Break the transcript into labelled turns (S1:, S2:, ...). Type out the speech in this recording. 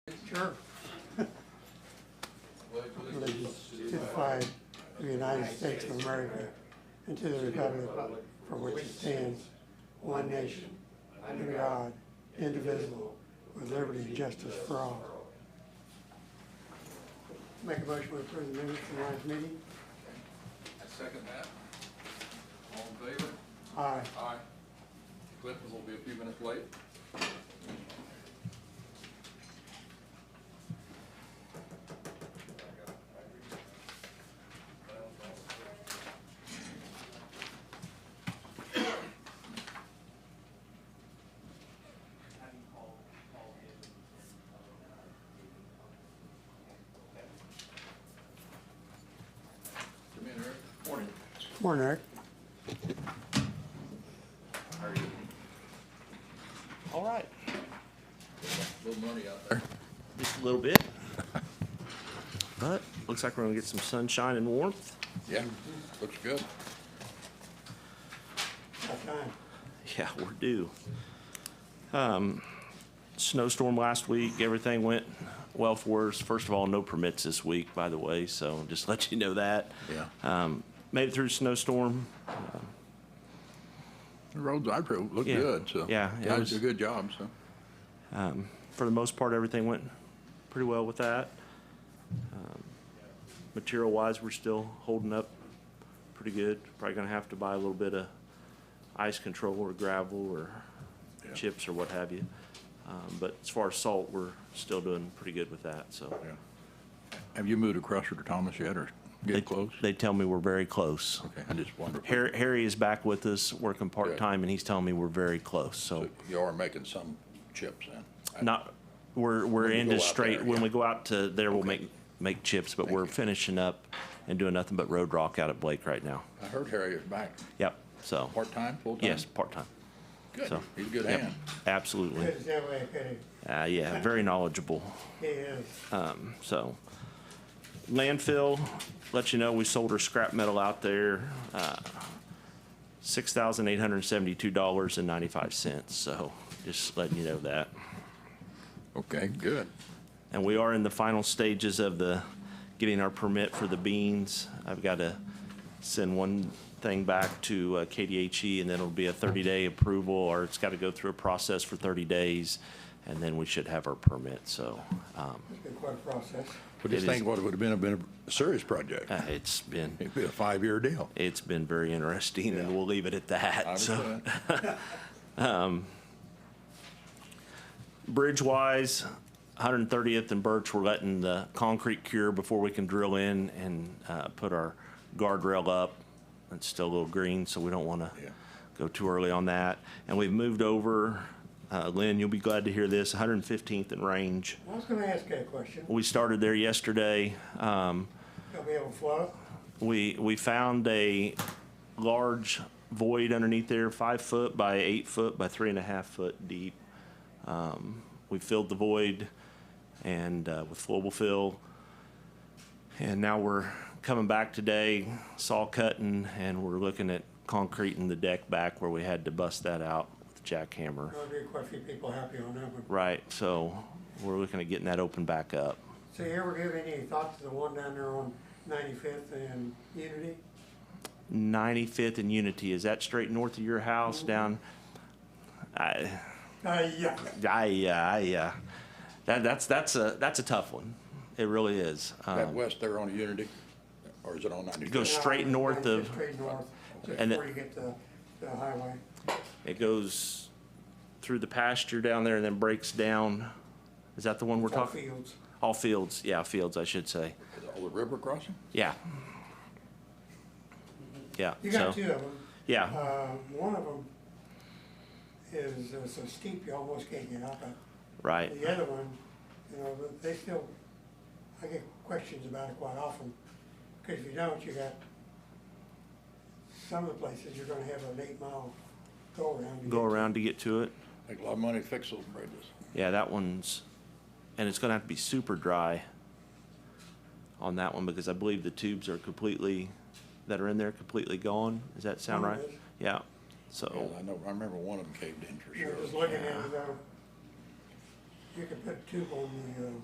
S1: Sure. Allegiance to the flag of the United States of America and to the republic for which it stands, one nation, under God, indivisible, with liberty and justice for all. Make a motion to approve the minutes from last meeting.
S2: I second that. All in favor?
S1: Aye.
S2: Aye. Clinton will be a few minutes late. Come in, Eric. Morning.
S1: Morning, Eric.
S2: How are you?
S3: All right,
S2: Little money out there.
S3: just a little bit. But looks like we're gonna get some sunshine and warmth.
S2: Yeah, looks good.
S1: About time.
S3: Yeah, we're due. Um, Snowstorm last week, everything went well for us. First of all, no permits this week, by the way, so just let you know that.
S2: Yeah.
S3: Um, Made it through the snowstorm.
S2: The roads I drove looked
S3: Yeah.
S2: good, so.
S3: Yeah, it
S2: Guys
S3: was-
S2: did a good job, so.
S3: For the most part, everything went pretty well with that. Um, Material-wise, we're still holding up pretty good. Probably gonna have to buy a little bit of ice control or gravel or
S2: Yeah.
S3: chips or what have you. Um, But as far as salt, we're still doing pretty good with that, so.
S2: yeah. Have you moved across to Thomas yet, or
S3: They-
S2: get close?
S3: They tell me we're very close.
S2: Okay, I just wondered.
S3: Harry, Harry is back with us, working part-time, and he's telling me we're very close, so.
S2: So You are making some chips then? I-
S3: Not, we're, we're
S2: When you
S3: into
S2: go out
S3: straight,
S2: there,
S3: when
S2: yeah.
S3: we go out to there, we'll
S2: Okay.
S3: make, make chips, but we're
S2: you.
S3: finishing up and doing nothing but road rock out at Blake right now.
S2: I heard Harry is back,
S3: Yep, so,
S2: part-time, full-time?
S3: yes, part-time.
S2: Good,
S3: so,
S2: he's a good
S3: yep,
S2: hand.
S3: Absolutely.
S1: Good as that way, Eddie.
S3: Uh, yeah, very knowledgeable,
S1: He is.
S3: um, so. Landfill, let you know, we sold our scrap metal out there, uh, six thousand eight hundred and seventy-two dollars and ninety-five cents, so just letting you know that.
S2: Okay, good.
S3: And we are in the final stages of the, getting our permit for the beans. I've got to send one thing back to uh, KDHE, and then it'll be a 30-day approval, or it's got to go through a process for 30 days, and then we should have our permit, so um,
S1: It's been quite a process.
S2: But just
S3: It is-
S2: think what it would have been, been a serious project.
S3: uh, it's been,
S2: It'd be a five-year deal.
S3: it's been very interesting, and
S2: Yeah.
S3: we'll leave it at that, so.
S2: Understand?
S3: Bridge-wise, 130th and Birch, we're letting the concrete cure before we can drill in and uh, put our guardrail up. It's still a little green, so we don't want to
S2: Yeah.
S3: go too early on that. And we've moved over, uh, Lynn, you'll be glad to hear this, 115th and Range.
S1: I was gonna ask you a question.
S3: We started there yesterday. Um,
S1: Gonna be able to flood it?
S3: we, we found a large void underneath there, five foot by eight foot by three and a half foot deep. Um, we filled the void and uh, with flowable fill. And now we're coming back today, saw cutting, and we're looking at concreting the deck back where we had to bust that out with the jackhammer.
S1: There'll be quite a few people happy on that one.
S3: Right, so we're looking at getting that open back up.
S1: So you ever give any thought to the one down there on ninety-fifth and Unity?
S3: 95th and Unity, is that straight north of your house down? I,
S1: Uh, yeah,
S3: I, yeah, I, yeah. That, that's, that's a, that's a tough one. It really is.
S2: That
S3: Um,
S2: west there on Unity, or is it on 92?
S3: goes straight north of-
S1: Straight north,
S3: And
S1: before
S3: it-
S1: you get to the highway.
S3: it goes through the pasture down there and then breaks down. Is that the one we're
S1: All
S3: talking?
S1: fields.
S3: All fields, yeah, fields, I should say.
S2: Is it all the river crossing?
S3: Yeah. Yeah,
S1: You
S3: so,
S1: got two of them.
S3: yeah,
S1: Uh, one of them is uh, so steep you almost can't get up it.
S3: right.
S1: The other one, you know, but they still, I get questions about it quite often. Cause if you don't, you got, some of the places you're gonna have an eight mile go around. to
S3: Go
S1: get to
S3: around to get to it.
S2: Take a lot of money to fix those bridges.
S3: Yeah, that one's, and it's gonna have to be super dry on that one because I believe the tubes are completely, that are in there completely gone. Does that sound
S1: One
S3: right?
S1: is.
S3: Yeah,
S2: Yeah,
S3: so,
S2: I know, I remember one of them caved in for
S1: You know,
S2: sure.
S1: just looking at
S3: yeah.
S1: it, uh, you could put a tube on the, um,